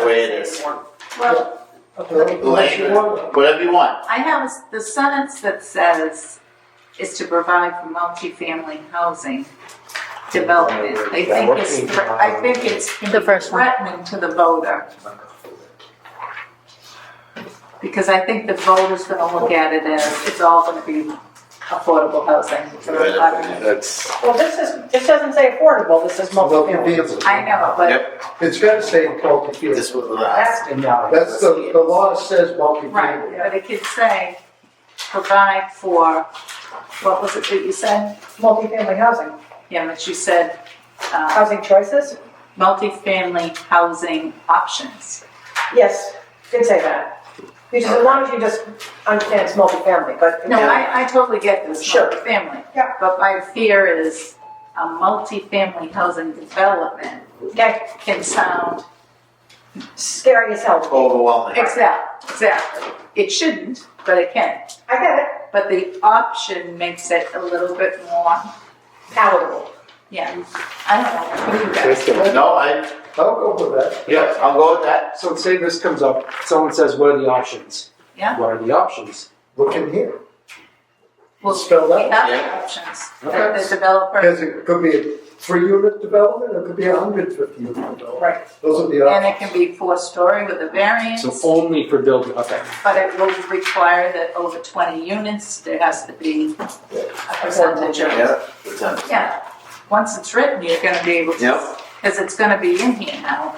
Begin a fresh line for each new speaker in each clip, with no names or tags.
the way it is.
Well,
Whatever you want.
I have a s- the sentence that says is to provide for multifamily housing development. I think it's, thre- I think it's
The first one.
threatening to the voter. Because I think the voter's gonna look at it as, it's all gonna be affordable housing.
That's.
Well, this is, this doesn't say affordable, this is multifamily.
I know, but,
It's gotta say multi-family.
This will
That's-
That's the, the law says multi-family.
right, but it could say, provide for, what was it that you said?
Multifamily housing,
Yeah, but you said, uh,
housing choices?
multifamily housing options.
Yes, did say that. You just, as long as you just understand it's multifamily, but.
No, I, I totally get this,
Sure.
multifamily.
Yeah.
But my fear is a multifamily housing development
Okay,
can sound,
scary as hell.
Overwhelming.
exact, exactly. It shouldn't, but it can.
I get it,
But the option makes it a little bit more,
palatable.
yeah, I don't know, what do you guys?
No, I,
I'll go with that.
yeah, I'll go with that.
So say this comes up, someone says, what are the options?
Yeah.
What are the options?
Look in here,
Well,
spell
We
out.
have
Yeah.
the options, that the developer,
Because it could be a three-unit development, or it could be a hundred fifty unit development.
Right.
Those are the
and it
options.
can be four-story with a variance.
So only for building, okay.
But it will require that over twenty units, there has to be a percentage of.
Yeah. it's done.
Yeah, once it's written, you're gonna be able to,
Yep.
because it's gonna be in here now.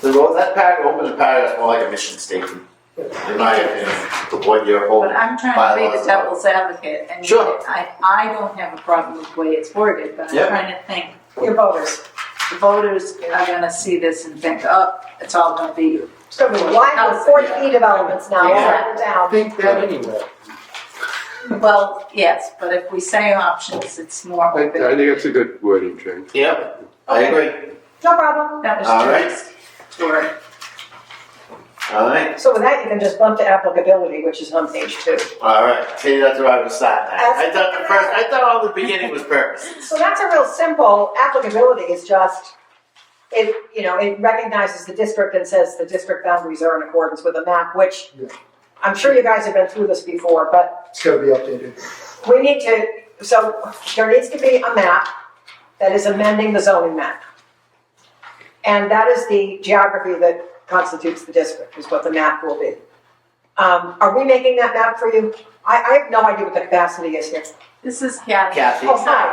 The road, that pack, open the pack, that's more like a mission statement, in my opinion, to what you're
But
holding.
I'm trying to be
Oh, Bylaws.
the devil's advocate, and
Sure.
I, I don't have a problem with the way it's worded, but I'm
Yep.
trying to think,
Your voters,
the voters are gonna see this and think, oh, it's all gonna be.
it's gonna be wide with forty E developments now, all
Yeah.
over
I
town.
think that anyway.
Well, yes, but if we say options, it's more
I, I
open.
think it's a good wording change.
Yep, I agree.
No problem.
That
All right.
was just, or,
All right,
So with that, you can just bump to applicability, which is on page two.
all right, see, that's where I was at now. I thought the first, I thought all the beginning was purpose.
So that's a real simple, applicability is just, it, you know, it recognizes the district and says the district boundaries are in accordance with the map, which
Yeah.
I'm sure you guys have been through this before, but
It's gotta be updated.
we need to, so there needs to be a map that is amending the zoning map. And that is the geography that constitutes the district, is what the map will be. Um, are we making that map for you? I, I have no idea what the capacity is here.
this is Kathy.
Kathy.
Oh, hi.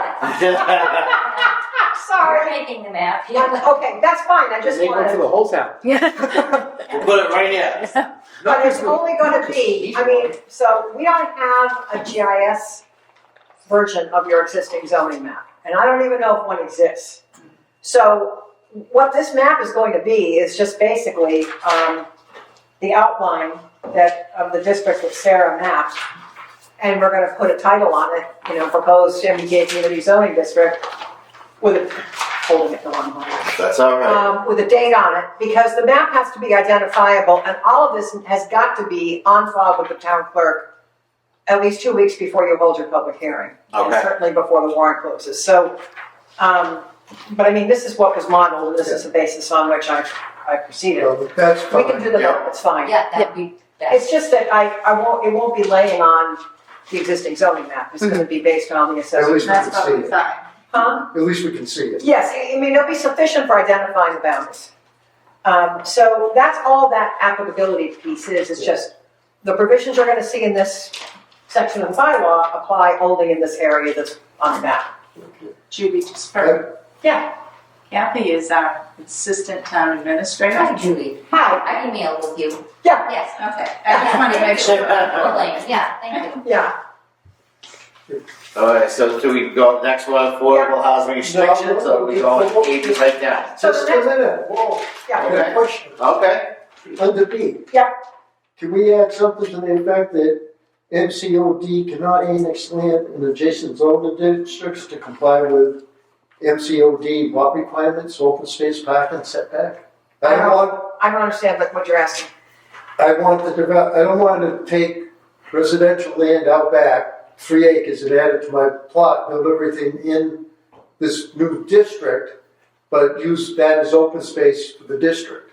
I'm sorry.
Sorry, making the map.
Yeah, okay, that's fine, I just
Make one for
wanted,
the whole town.
Yeah.
We'll put it right here.
but it's only gonna be, I mean, so we don't have a GIS version of your existing zoning map, and I don't even know if one exists. So what this map is going to be is just basically, um, the outline that, of the district that Sarah mapped. And we're gonna put a title on it, you know, proposed MBTA community zoning district with a, holding it the wrong way.
That's all right.
um, with a date on it, because the map has to be identifiable, and all of this has got to be on file with the town clerk at least two weeks before you hold your public hearing. and
Okay.
Certainly before the warrant closes, so, um, but I mean, this is what was modeled, and this is the basis on which I, I proceeded.
So that's
We can do
fine.
the
Yeah.
map, it's fine.
Yeah, that'd be best.
It's just that I, I won't, it won't be laying on the existing zoning map, it's gonna be based on the
At
assessment.
least we
That's
can see
what we
it.
thought.
Huh?
At least we can see it.
Yes, I I mean, it'll be sufficient for identifying the boundaries. Um, so that's all that applicability piece is, it's just, the provisions you're gonna see in this section of the bylaw apply only in this area that's on the map.
Judy just heard.
Yeah.
Kathy is our assistant town administrator.
Hi, Julie.
Hi,
I emailed with you.
Yeah.
Yes.
Okay, I just wanted to make sure.
Elaine, yeah, thank you.
yeah,
All right, so do we go next one, affordable housing restrictions, or we go eighty right now?
So the
Just a
next-
minute, whoa, I
yeah,
got a question.
Okay,
Under B.
Yeah.
Can we add something to the effect that MCOD cannot annex land in adjacent zoning districts to comply with MCOD lot requirements, open space, parking setback? I
Uh-huh.
want,
I don't understand what- what you're asking.
I want the develop, I don't want to take residential land out back, three acres and add it to my plot, build everything in this new district, but use that as open space for the district.